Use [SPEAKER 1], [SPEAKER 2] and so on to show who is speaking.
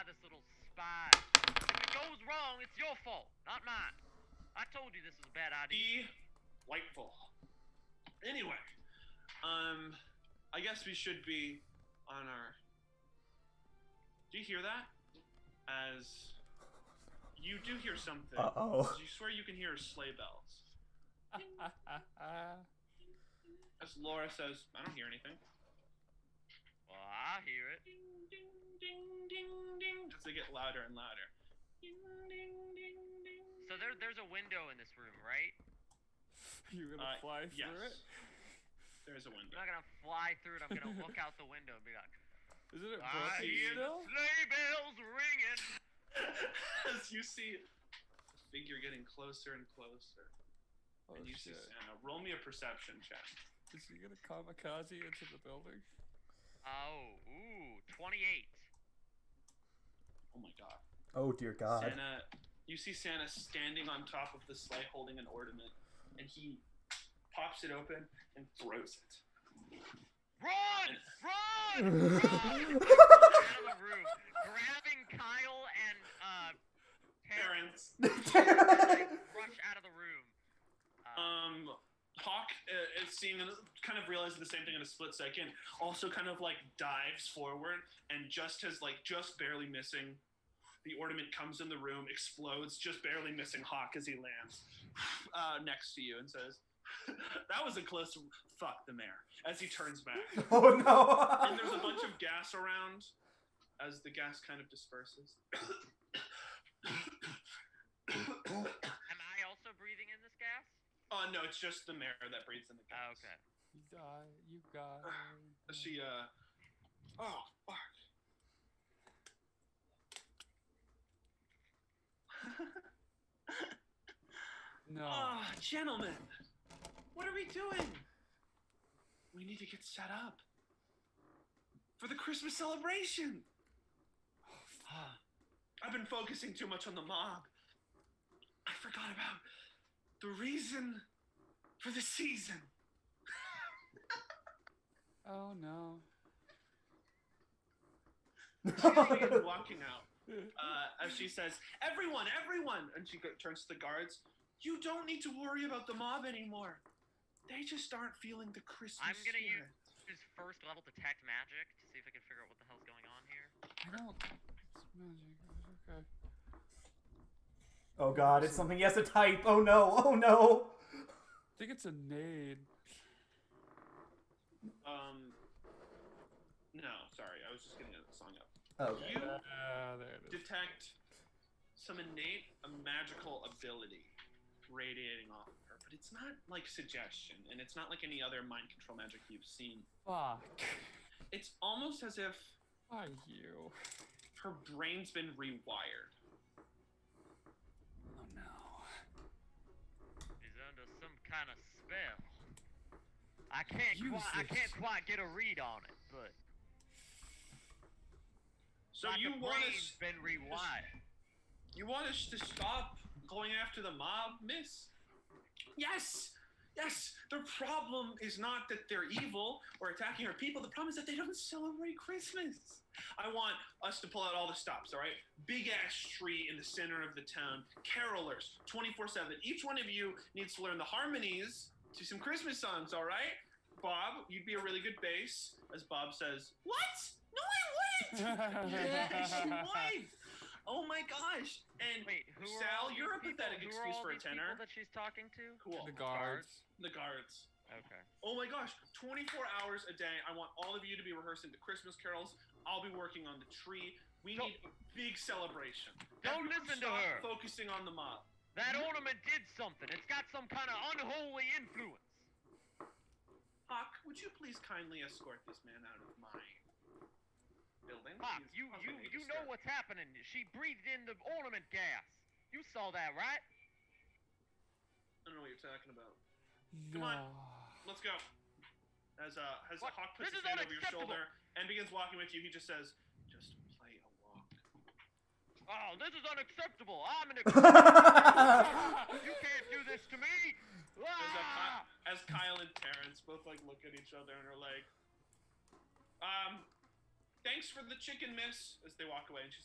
[SPEAKER 1] fine. If it goes wrong, it's your fault, not mine. I told you this was a bad idea.
[SPEAKER 2] Delightful. Anyway, um, I guess we should be on our. Do you hear that? As you do hear something.
[SPEAKER 3] Uh oh.
[SPEAKER 2] You swear you can hear sleigh bells. As Laura says, I don't hear anything.
[SPEAKER 1] Well, I hear it.
[SPEAKER 2] Ding, ding, ding, ding, ding. As they get louder and louder. Ding, ding, ding, ding.
[SPEAKER 1] So there, there's a window in this room, right?
[SPEAKER 4] You're
[SPEAKER 2] Uh,
[SPEAKER 4] gonna fly through
[SPEAKER 2] yes.
[SPEAKER 4] it?
[SPEAKER 2] There's a
[SPEAKER 1] I'm
[SPEAKER 2] window.
[SPEAKER 1] not gonna fly through it. I'm gonna look out the window and be like,
[SPEAKER 4] Isn't it
[SPEAKER 2] Ah,
[SPEAKER 1] I
[SPEAKER 4] broken
[SPEAKER 1] hear the
[SPEAKER 4] still?
[SPEAKER 1] sleigh bells ringing.
[SPEAKER 2] As you see a figure getting closer and closer,
[SPEAKER 4] Oh,
[SPEAKER 2] and you
[SPEAKER 4] shit.
[SPEAKER 2] see Santa. Roll me a perception check.
[SPEAKER 4] Is he gonna kamikaze into the building?
[SPEAKER 1] Oh, ooh, 28.
[SPEAKER 2] Oh my god.
[SPEAKER 3] Oh dear God.
[SPEAKER 2] Santa, you see Santa standing on top of the sleigh holding an ornament, and he pops it open and throws it.
[SPEAKER 1] Run! Run! Run! out of the room, grabbing Kyle and uh, Terrence,
[SPEAKER 2] Parents,
[SPEAKER 1] like, rush out of the room. Uh,
[SPEAKER 2] um, Hawk uh, is seeing, kind of realizing the same thing in a split second. Also, kind of like dives forward and just has like just barely missing. The ornament comes in the room, explodes, just barely missing Hawk as he lands uh, next to you and says, "That was a close." Fuck the mayor as he turns back.
[SPEAKER 3] oh
[SPEAKER 2] and there's a
[SPEAKER 3] no.
[SPEAKER 2] bunch of gas around as the gas kind of disperses.
[SPEAKER 1] am I also breathing in this gas?
[SPEAKER 2] Oh no, it's just the mayor that breathes in the gas.
[SPEAKER 1] Oh, okay.
[SPEAKER 4] You die, you die.
[SPEAKER 2] She uh Oh fuck.
[SPEAKER 4] No.
[SPEAKER 2] Oh, gentlemen. What are we doing? We need to get set up. For the Christmas celebration. Ah, I've been focusing too much on the mob. I forgot about the reason for the season.
[SPEAKER 4] Oh no.
[SPEAKER 2] She's walking out. Uh, as she says, "Everyone, everyone!" and she go- turns to the guards. You don't need to worry about the mob anymore. They just aren't feeling the Christmas.
[SPEAKER 1] I'm gonna
[SPEAKER 2] spirit.
[SPEAKER 1] This is first level detect magic to see if I can figure out what the hell's going on here.
[SPEAKER 4] I don't. It's magic. it's Okay.
[SPEAKER 3] Oh God, it's something he has to type. Oh no. Oh no.
[SPEAKER 4] I think it's a nade.
[SPEAKER 2] Um. No, sorry. I was just getting a song up.
[SPEAKER 3] Okay.
[SPEAKER 2] You
[SPEAKER 4] Ah, there it is.
[SPEAKER 2] detect some innate uh, magical ability radiating off of her, but it's not like suggestion, and it's not like any other mind control magic you've seen.
[SPEAKER 4] Fuck.
[SPEAKER 2] It's almost as if
[SPEAKER 4] Why you?
[SPEAKER 2] her brain's been rewired.
[SPEAKER 4] Oh no.
[SPEAKER 1] He's under some kind of spell. I can't
[SPEAKER 4] Use
[SPEAKER 1] quite, I
[SPEAKER 4] this.
[SPEAKER 1] can't quite get a read on it, but
[SPEAKER 2] So
[SPEAKER 1] like
[SPEAKER 2] you
[SPEAKER 1] the
[SPEAKER 2] want
[SPEAKER 1] brain's
[SPEAKER 2] us?
[SPEAKER 1] been rewired.
[SPEAKER 2] You want us to stop going after the mob, Miss? Yes, yes. The problem is not that they're evil or attacking our people. The problem is that they don't celebrate Christmas. I want us to pull out all the stops. All right, big ass tree in the center of the town. Carolers, twenty four seven. Each one of you needs to learn the harmonies to some Christmas songs. All right, Bob, you'd be a really good bass, as Bob says. What? No, I wouldn't. Yes, you would. Oh my gosh! And
[SPEAKER 1] Wait, who are
[SPEAKER 2] Sal,
[SPEAKER 1] all these
[SPEAKER 2] you're a
[SPEAKER 1] people-
[SPEAKER 2] pathetic
[SPEAKER 1] who are
[SPEAKER 2] excuse
[SPEAKER 1] all
[SPEAKER 2] for a
[SPEAKER 1] these people
[SPEAKER 2] tenor.
[SPEAKER 1] that she's talking to?
[SPEAKER 2] cool.
[SPEAKER 4] the guards.
[SPEAKER 2] The guards.
[SPEAKER 1] Okay.
[SPEAKER 2] Oh my gosh! 24 hours a day. I want all of you to be rehearsing the Christmas carols. I'll be working on the tree. We
[SPEAKER 1] Don't-
[SPEAKER 2] need a big celebration.
[SPEAKER 1] Don't
[SPEAKER 2] Everyone
[SPEAKER 1] listen to
[SPEAKER 2] stop
[SPEAKER 1] her.
[SPEAKER 2] Focusing on the mob.
[SPEAKER 1] That ornament did something. It's got some kind of unholy influence.
[SPEAKER 2] Hawk, would you please kindly escort this man out of my building?
[SPEAKER 1] Pop,
[SPEAKER 2] He's
[SPEAKER 1] you you
[SPEAKER 2] causing a
[SPEAKER 1] you know
[SPEAKER 2] disturbance.
[SPEAKER 1] what's happening. She breathed in the ornament gas. You saw that, right?
[SPEAKER 2] I don't know what you're talking about. Come
[SPEAKER 4] No.
[SPEAKER 2] on. Let's go. As uh, as
[SPEAKER 1] What?
[SPEAKER 2] Hawk puts
[SPEAKER 1] This is
[SPEAKER 2] his hand over your
[SPEAKER 1] unacceptable.
[SPEAKER 2] shoulder and begins walking with you, he just says, "Just play along."
[SPEAKER 1] Oh, this is unacceptable. I'm an Oh, You can't do this to me.
[SPEAKER 2] As, uh,
[SPEAKER 1] Ah!
[SPEAKER 2] Ky- as Kyle and Terrence both like look at each other and are like, "Um, thanks for the chicken, miss." As they walk away, and she